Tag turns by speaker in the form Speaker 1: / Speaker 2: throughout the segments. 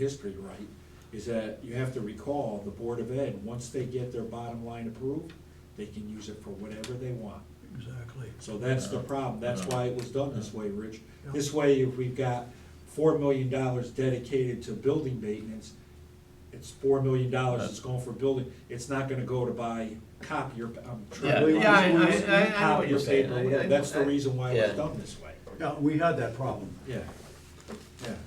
Speaker 1: history right, is that you have to recall, the Board of Ed, once they get their bottom line approved, they can use it for whatever they want.
Speaker 2: Exactly.
Speaker 1: So that's the problem, that's why it was done this way, Rich.
Speaker 2: Yeah.
Speaker 1: This way, if we've got four million dollars dedicated to building maintenance, it's four million dollars that's going for building, it's not gonna go to buy copier, um,
Speaker 3: Yeah.
Speaker 1: trade-
Speaker 3: Yeah, I-
Speaker 2: I- I- I know what
Speaker 1: copier
Speaker 2: you're
Speaker 3: saying.
Speaker 1: paper,
Speaker 3: I- I
Speaker 1: whatever.
Speaker 2: know-
Speaker 1: that's the
Speaker 2: I-
Speaker 1: reason why it was
Speaker 3: Yeah.
Speaker 1: done this way.
Speaker 2: Yeah, we had that problem,
Speaker 1: Yeah, yeah.
Speaker 2: you know,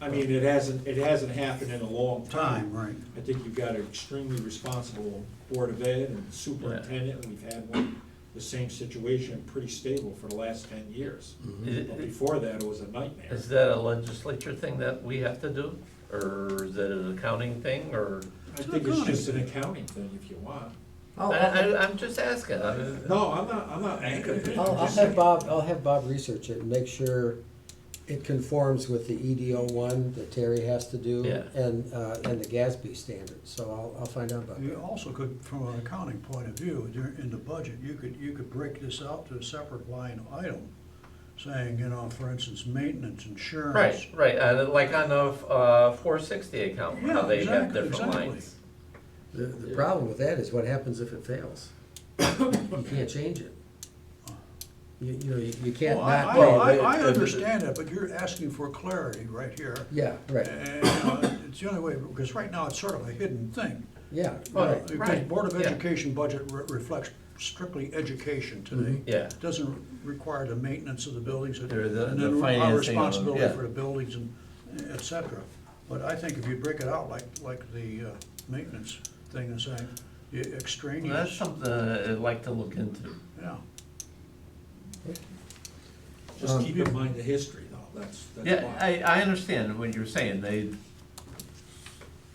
Speaker 1: I mean, it hasn't, it hasn't happened in a long
Speaker 2: time,
Speaker 1: time.
Speaker 2: right.
Speaker 1: I think you've got an extremely responsible Board of Ed and superintendent, and we've had one, the same situation, pretty stable for the last ten years.
Speaker 3: Is-
Speaker 1: But before that, it was a nightmare.
Speaker 3: Is that a legislature thing that we have to do, or is that an accounting thing, or?
Speaker 1: I think it's just an accounting thing, if you want.
Speaker 3: I,
Speaker 4: I'll, I'll,
Speaker 3: I, I'm just asking, I mean,
Speaker 1: No, I'm not, I'm not angry.
Speaker 4: I'll- I'll have Bob, I'll have Bob research it and make sure it conforms with the EDO one that Terry has to do.
Speaker 3: Yeah.
Speaker 4: And, uh, and the GASB standard, so I'll, I'll find out about
Speaker 2: You
Speaker 4: that.
Speaker 2: also could, from an accounting point of view, dur- in the budget, you could, you could break this out to a separate line item, saying, you know, for instance, maintenance, insurance.
Speaker 3: right, right, and like on the, uh, four sixty account, how
Speaker 2: Yeah,
Speaker 3: they have
Speaker 2: exactly,
Speaker 3: different
Speaker 2: exactly.
Speaker 3: lines.
Speaker 4: The, the problem with that is what happens if it fails? You can't change it. You, you know, you you can't
Speaker 2: Well, I,
Speaker 4: not
Speaker 2: I,
Speaker 4: pay.
Speaker 2: I-
Speaker 3: it-
Speaker 2: I
Speaker 3: it-
Speaker 2: understand it, but you're asking for clarity right here.
Speaker 4: Yeah, right,
Speaker 2: And uh, it's the only way, because right now, it's sort of a hidden thing.
Speaker 4: yeah,
Speaker 3: Well,
Speaker 4: right.
Speaker 2: Because
Speaker 3: Right,
Speaker 2: Board of
Speaker 3: yeah.
Speaker 2: Education budget re- reflects strictly education today.
Speaker 3: Mm-hmm. Yeah,
Speaker 2: Doesn't require the maintenance of the buildings and
Speaker 3: Or the-
Speaker 2: and
Speaker 3: the
Speaker 2: then our
Speaker 3: financing of them,
Speaker 2: responsibility
Speaker 3: yeah.
Speaker 2: for the buildings and et cetera. But I think if you break it out like, like the uh, maintenance thing is saying, the
Speaker 3: Well, that's
Speaker 2: extraneous,
Speaker 3: something I'd like to look into.
Speaker 2: yeah.
Speaker 1: Just keep in mind the history, though, that's, that's
Speaker 3: Yeah,
Speaker 1: why.
Speaker 3: I, I understand what you're saying, they,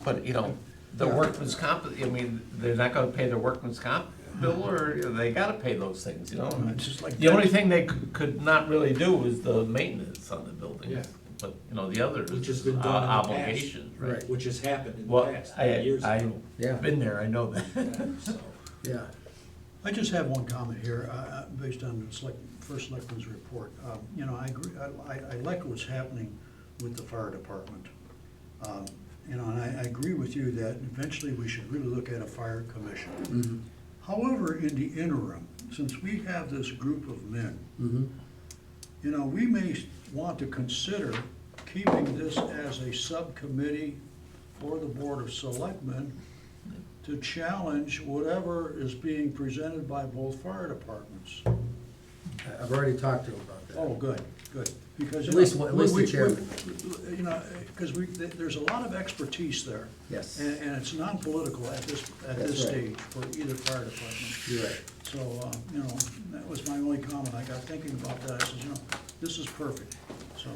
Speaker 3: but, you know, the workman's comp, I mean, they're not gonna pay their workman's comp bill, or they gotta pay those things, you know? I mean,
Speaker 2: It's just like
Speaker 3: The only thing they c- could not really do was the maintenance on the building,
Speaker 1: Yeah.
Speaker 3: but, you know, the other
Speaker 1: Which has
Speaker 3: is
Speaker 1: been
Speaker 3: uh,
Speaker 1: done in the past.
Speaker 3: obligation, right?
Speaker 4: Right.
Speaker 1: Which has happened in the
Speaker 3: Well,
Speaker 1: past,
Speaker 3: I,
Speaker 1: years ago.
Speaker 4: Yeah.
Speaker 3: I've been there, I know that.
Speaker 1: So,
Speaker 4: Yeah,
Speaker 2: I just have one comment here, uh, uh, based on the select, first selectman's report. Um, You know, I agree, I- I, I like what's happening with the fire department. Um, You know, and I, I agree with you that eventually we should really look at a fire
Speaker 4: Mm-hmm.
Speaker 2: commission. However, in the interim, since we have this group of men,
Speaker 4: mm-hmm,
Speaker 2: you know, we may want to consider keeping this as a subcommittee for the Board of Selectmen to challenge whatever is being presented by both fire departments.
Speaker 4: I've already talked to him about that.
Speaker 2: Oh, good, good. Because
Speaker 4: At least one- at least the
Speaker 2: we- we-
Speaker 4: chairman.
Speaker 2: we- You know, because we, th- there's a lot of expertise there.
Speaker 4: Yes.
Speaker 2: And, and it's non-political at this, at
Speaker 4: That's
Speaker 2: this
Speaker 4: right.
Speaker 2: stage for either fire department.
Speaker 4: You're right.
Speaker 2: So, uh, you know, that was my only comment. I got thinking about that. I said, you know, this is perfect, so.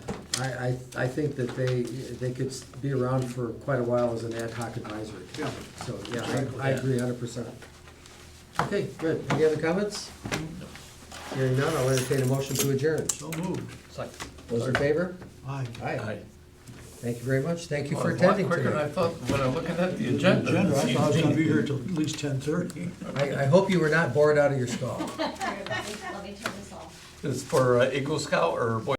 Speaker 4: I, I, I think that they, they could s- be around for quite a while as an ad hoc advisory.
Speaker 2: Yeah.
Speaker 4: So, yeah, I, I agree a hundred percent. Okay, good. Any other comments? Hearing none, I'll entertain a motion to adjourn.
Speaker 2: So moved.
Speaker 3: It's like,
Speaker 4: Those in favor?
Speaker 2: Aye.
Speaker 4: Aye.
Speaker 3: I-
Speaker 4: Thank you very much. Thank you
Speaker 3: well,
Speaker 4: for
Speaker 3: Oh, it's a lot
Speaker 4: attending
Speaker 3: Quicker than I
Speaker 4: today.
Speaker 3: thought, when I'm looking at the agenda.
Speaker 2: Agenda, I thought I was gonna be
Speaker 3: it's-
Speaker 2: here till at least ten thirty.
Speaker 4: I, I hope you were not bored out of your skull.
Speaker 5: Let me turn this off.
Speaker 3: It's for uh, Eagle Scout or Boy